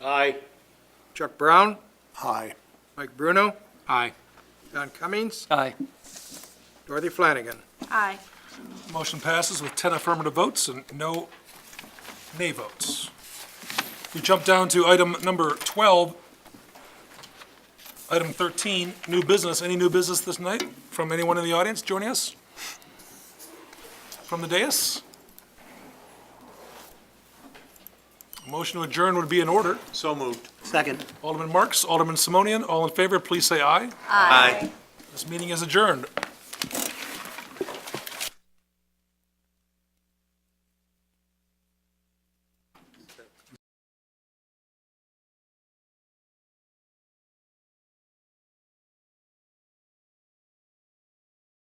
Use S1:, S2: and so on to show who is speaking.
S1: Chuck Brown,
S2: Aye.
S1: Mike Bruno,
S3: Aye.
S1: Don Cummings,
S3: Aye.
S1: Dorothy Flanagan.
S4: Aye.
S5: Motion passes with 10 affirmative votes and no nay votes. We jump down to item number 12. Item 13, new business. Any new business this night from anyone in the audience joining us? From the dais? Motion to adjourn would be in order.
S2: So moved.
S6: Second.
S5: Alderman Marks, Alderman Simonian, all in favor, please say aye.
S4: Aye.
S5: This meeting is adjourned.